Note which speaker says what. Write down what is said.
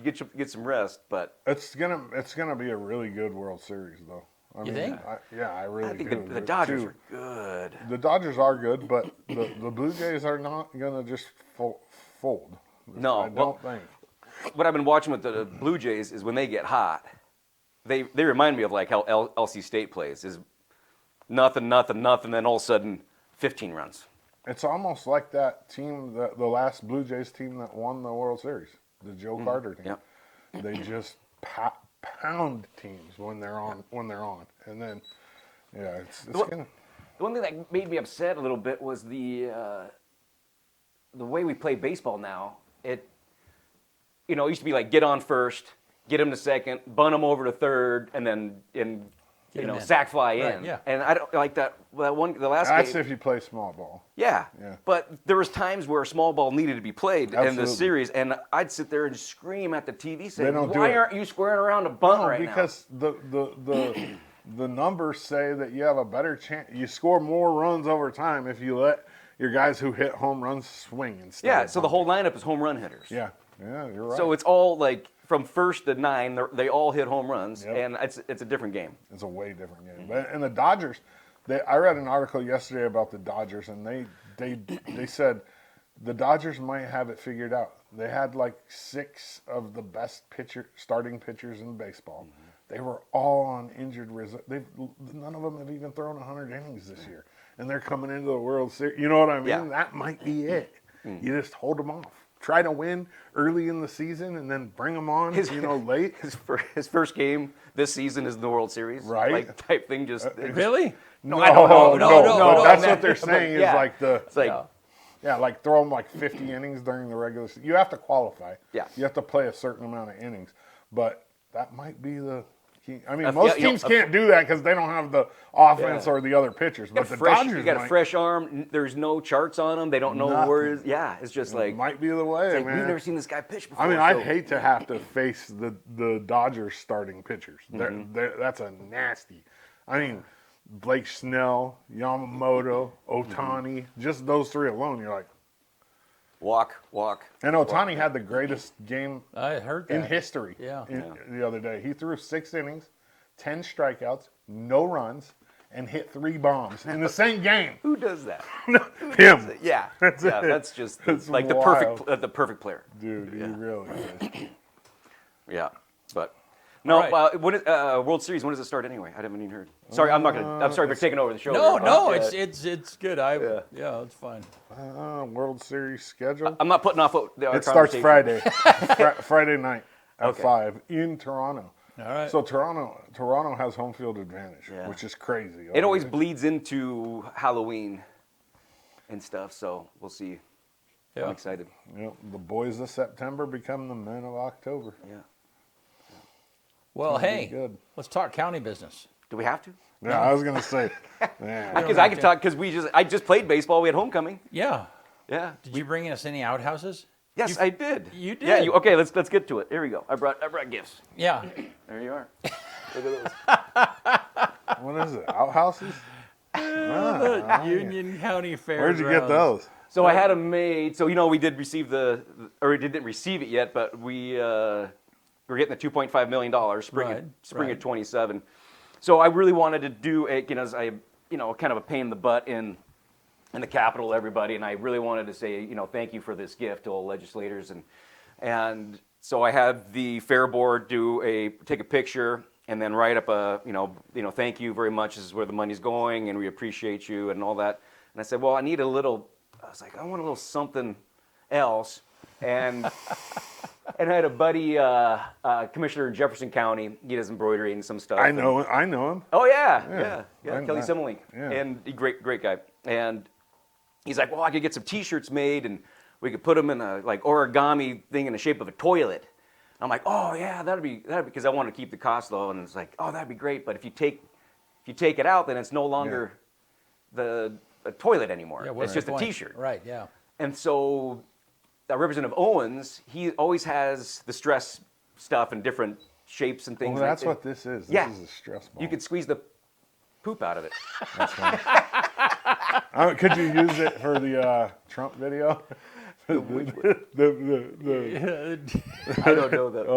Speaker 1: You get your, get some rest, but
Speaker 2: It's gonna it's gonna be a really good World Series though. I
Speaker 3: You think?
Speaker 2: I, yeah, I really
Speaker 1: I think
Speaker 2: do.
Speaker 1: the, the Dodgers
Speaker 2: Two-
Speaker 1: are good.
Speaker 2: the Dodgers are good, but the, the Blue Jays are not gonna just fo- fold.
Speaker 1: No,
Speaker 2: I don't
Speaker 1: well-
Speaker 2: think.
Speaker 1: What I've been watching with the the Blue Jays is when they get hot, they they remind me of like how L- LC State plays is nothing, nothing, nothing, then all of a sudden 15 runs.
Speaker 2: It's almost like that team that the last Blue Jays team that won the World Series, the Joe Carter team.
Speaker 1: Mm-hmm. yep.
Speaker 2: They just pa- pound teams when they're on when they're on, and then yeah, it's, it's
Speaker 1: Well-
Speaker 2: gonna.
Speaker 1: The one thing that made me upset a little bit was the uh, the way we play baseball now. It you know it used to be like get on first, get him to second, bunt him over to third, and then and you
Speaker 3: Get him
Speaker 1: know
Speaker 3: in.
Speaker 1: sack fly
Speaker 3: Right,
Speaker 1: in.
Speaker 3: yeah.
Speaker 1: And I don't like that that one the last
Speaker 2: That's
Speaker 1: game.
Speaker 2: if you play small ball.
Speaker 1: yeah.
Speaker 2: Yeah.
Speaker 1: But there was times where a small ball needed to be played in
Speaker 2: Absolutely.
Speaker 1: the series, and I'd sit there and scream at the TV saying,
Speaker 2: don't do
Speaker 1: "Why
Speaker 2: it.
Speaker 1: aren't you squaring around a bunt
Speaker 2: No,
Speaker 1: right now?"
Speaker 2: because the the the the numbers say that you have a better chance. You score more runs over time if you let your guys who hit home runs swing instead.
Speaker 1: yeah.
Speaker 2: of
Speaker 1: So the
Speaker 2: bunting.
Speaker 1: whole lineup is home run hitters.
Speaker 2: Yeah, yeah, you're right.
Speaker 1: So it's all like from first to nine, they're- they all hit home runs,
Speaker 2: Yep.
Speaker 1: and it's it's a different game.
Speaker 2: It's a way different game. But and the Dodgers, they, I read an article yesterday about the Dodgers, and they they they said the Dodgers might have it figured out. They had like six of the best pitcher starting pitchers in baseball. They were all on injured reserve. They none of them have even thrown 100 innings this year, and they're coming into the World Series. You know what I mean?
Speaker 1: Yeah. Mm-hmm.
Speaker 2: That might be it. You just hold them off. Try to win early in the season, and then bring them on.
Speaker 1: His-
Speaker 2: you know, late.
Speaker 1: His first, his first game this season is in the World Series,
Speaker 2: Right. Uh,
Speaker 1: Like type thing. Just it-
Speaker 3: Really?
Speaker 1: No, I don't know.
Speaker 3: No, no,
Speaker 2: but
Speaker 3: no,
Speaker 2: that's
Speaker 3: no.
Speaker 2: what they're saying is
Speaker 1: Yeah.
Speaker 2: like the
Speaker 1: It's like
Speaker 2: yeah, like throw them like 50 innings during the regular season. You have to qualify.
Speaker 1: Yeah.
Speaker 2: You have to play a certain amount of innings, but that might be the key. I mean,
Speaker 1: If-
Speaker 2: most
Speaker 1: yeah, you
Speaker 2: teams
Speaker 1: know, if-
Speaker 2: can't do that because they don't have the offense or the other pitchers. But the
Speaker 1: fresh.
Speaker 2: Dodgers
Speaker 1: You got
Speaker 2: might,
Speaker 1: a fresh arm. n- There's no charts on him. They don't know
Speaker 2: Nothing.
Speaker 1: where. Is, yeah, it's just like,
Speaker 2: might be the way,
Speaker 1: it's like,
Speaker 2: man.
Speaker 1: we've never seen this guy pitch before.
Speaker 2: I mean, I'd
Speaker 1: so-
Speaker 2: hate to have to face the the Dodgers starting pitchers. They're,
Speaker 1: Mm-hmm.
Speaker 2: they're, that's a nasty. I mean, Blake Snell, Yamamoto,
Speaker 1: Mm-hmm.
Speaker 2: Otani, just those three alone. You're like,
Speaker 1: walk, walk.
Speaker 2: and Otani had the greatest game
Speaker 3: I heard that.
Speaker 2: in history.
Speaker 3: Yeah.
Speaker 2: in- The other day, he threw six innings, ten strikeouts, no runs, and hit three bombs in the same game.
Speaker 1: Who does that?
Speaker 2: Him,
Speaker 1: Yeah,
Speaker 2: That's
Speaker 1: yeah.
Speaker 2: it.
Speaker 1: That's just
Speaker 2: That's
Speaker 1: like the
Speaker 2: wild.
Speaker 1: perfect uh, the perfect player.
Speaker 2: dude. He really. Is.
Speaker 1: Yeah, but no.
Speaker 3: right.
Speaker 1: Uh, when is, uh, World Series? When does it start anyway? I haven't even heard. Sorry, I'm not gonna. I'm sorry
Speaker 2: Uh,
Speaker 1: for taking over the show.
Speaker 3: No,
Speaker 1: here, but,
Speaker 3: no,
Speaker 1: uh,
Speaker 3: it's it's it's good. I yeah,
Speaker 1: Yeah.
Speaker 3: it's fine.
Speaker 2: Uh, World Series schedule.
Speaker 1: I'm not putting off. What, the, our
Speaker 2: It starts
Speaker 1: conversation.
Speaker 2: Friday, Fri- Friday night at
Speaker 1: Okay.
Speaker 2: five in Toronto.
Speaker 3: All right.
Speaker 2: So Toronto, Toronto has home field advantage,
Speaker 1: Yeah.
Speaker 2: which is crazy.
Speaker 1: It always bleeds into Halloween and stuff. So we'll see. I'm
Speaker 3: Yeah.
Speaker 1: excited.
Speaker 2: You know, the boys of September become the men of October.
Speaker 1: Yeah.
Speaker 3: Well, hey,
Speaker 2: good.
Speaker 3: let's talk county business.
Speaker 1: Do we have to?
Speaker 2: Yeah, I was gonna say. man,
Speaker 1: Because I could talk. Because we just. I just played baseball. We had homecoming.
Speaker 3: Yeah.
Speaker 1: Yeah.
Speaker 3: Did you bring us any outhouses?
Speaker 1: Yes, I did.
Speaker 3: you
Speaker 1: Yeah.
Speaker 3: did.
Speaker 1: You, okay. Let's let's get to it. Here we go. I brought I brought gifts.
Speaker 3: Yeah.
Speaker 1: There you are. Look at those.
Speaker 2: what is it? Outhouses? Ah,
Speaker 3: Union County Fair.
Speaker 2: Where'd you get those?
Speaker 1: So I had them made. So you know, we did receive the, or we didn't receive it yet, but we uh, we're getting the 2.5 million dollars spring
Speaker 3: Right,
Speaker 1: of, spring
Speaker 3: right.
Speaker 1: of 27. So I really wanted to do a, you know, as I you know, kind of a pain in the butt in in the Capitol, everybody, and I really wanted to say, you know, thank you for this gift to all legislators, and and so I had the fair board do a take a picture and then write up a, you know, you know, thank you very much. This is where the money's going, and we appreciate you, and all that. And I said, well, I need a little. I was like, I want a little something else, and. And I had a buddy, uh, uh, commissioner in Jefferson County. He does embroidery and some stuff.
Speaker 2: I
Speaker 1: and-
Speaker 2: know, I know him.
Speaker 1: Oh yeah, yeah,
Speaker 2: Yeah,
Speaker 1: yeah.
Speaker 2: why
Speaker 1: Kelly
Speaker 2: not?
Speaker 1: Simulink,
Speaker 2: Yeah.
Speaker 1: and he- great, great guy. And he's like, well, I could get some T-shirts made, and we could put them in a like origami thing in the shape of a toilet. I'm like, oh yeah, that'd be that'd because I want to keep the cost low, and it's like, oh, that'd be great. But if you take if you take it out, then it's no longer the a toilet anymore.
Speaker 3: Yeah,
Speaker 1: it's
Speaker 3: what's the
Speaker 1: just a
Speaker 3: point?
Speaker 1: T-shirt.
Speaker 3: Right. Yeah.
Speaker 1: And so, uh, Representative Owens, he always has the stress stuff in different shapes and things.
Speaker 2: Well,
Speaker 1: like
Speaker 2: that's
Speaker 1: that.
Speaker 2: what this is. This
Speaker 1: Yeah.
Speaker 2: is a stress ball.
Speaker 1: You could squeeze the poop out of it.
Speaker 2: Uh, could you use it for the uh, Trump video?
Speaker 4: the, the, the, the
Speaker 2: I don't know that.